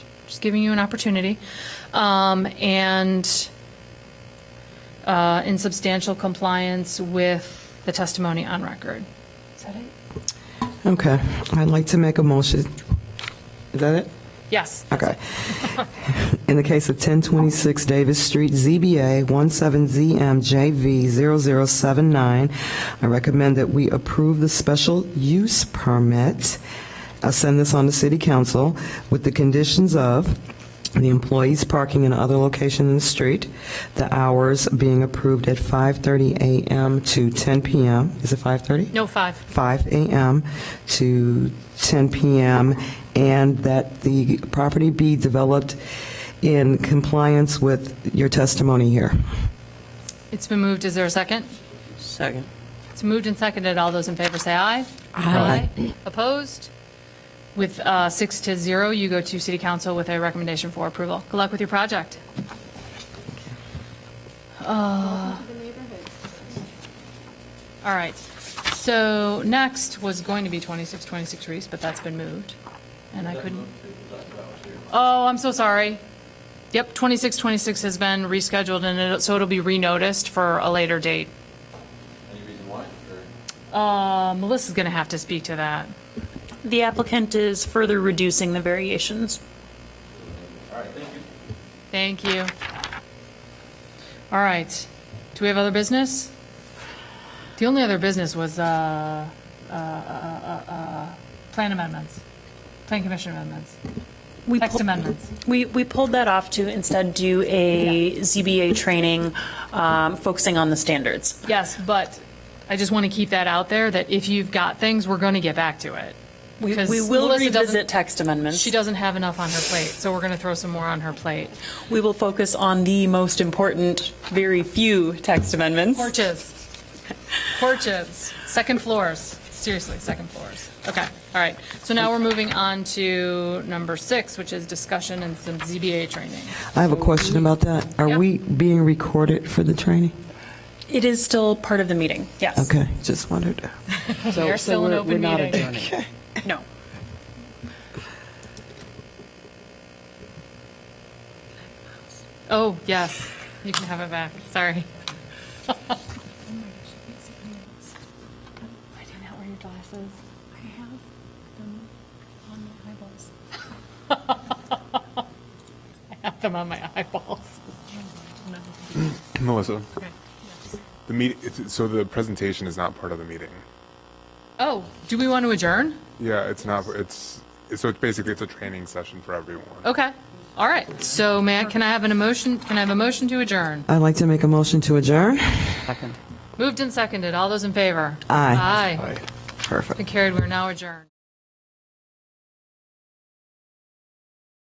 Just giving you an opportunity. Um, And uh, in substantial compliance with the testimony on record. Is that it? Okay, I'd like to make a motion. Is that it? Yes. Okay. In the case of 1026 Davis Street, ZBA 17ZMJV0079, I recommend that we approve the special use permit. I'll send this on to City Council with the conditions of the employees parking in other location in the street, the hours being approved at 5:30 a.m. to 10 p.m. Is it 5:30? No, five. 5 a.m. to 10 p.m., and that the property be developed in compliance with your testimony here. It's been moved. Is there a second? Second. It's moved and seconded. All those in favor say aye. Aye. Opposed? With uh, six to zero, you go to City Council with a recommendation for approval. Good luck with your project. Uh, All right. So next was going to be 2626 Reese, but that's been moved, and I couldn't. Oh, I'm so sorry. Yep, 2626 has been rescheduled, and it- so it'll be renoticed for a later date. Uh, Melissa's going to have to speak to that. The applicant is further reducing the variations. Thank you. All right. Do we have other business? The only other business was uh, uh, uh, uh, uh, plan amendments, plan commission amendments, We text pull- amendments. We, we pulled that off to instead do a ZBA training um, focusing on the standards. Yes, but I just want to keep that out there, that if you've got things, we're going to get back to it. We Because we will Melissa doesn't- revisit text amendments. She doesn't have enough on her plate, so we're going to throw some more on her plate. We will focus on the most important, very few text amendments. Porches. Porches. Second floors. Seriously, second floors. Okay, all right. So now we're moving on to number six, which is discussion and some ZBA training. I have a question about that. Yeah. Are we being recorded for the training? It is still part of the meeting, yes. Okay, just wondered. We are still in open meeting. No. Oh, yes. You can have it back. Sorry. Why do you not wear your glasses? I have them on my eyeballs. I have them on my eyeballs. Melissa, the meet, it's- so the presentation is not part of the meeting. Oh, do we want to adjourn? Yeah, it's not, it's, so it's basically, it's a training session for everyone. Okay. All right. So may I, can I have an emotion, can I have a motion to adjourn? I'd like to make a motion to adjourn. Moved and seconded. All those in favor? Aye. Aye. Perfect. Been carried. We're now adjourned.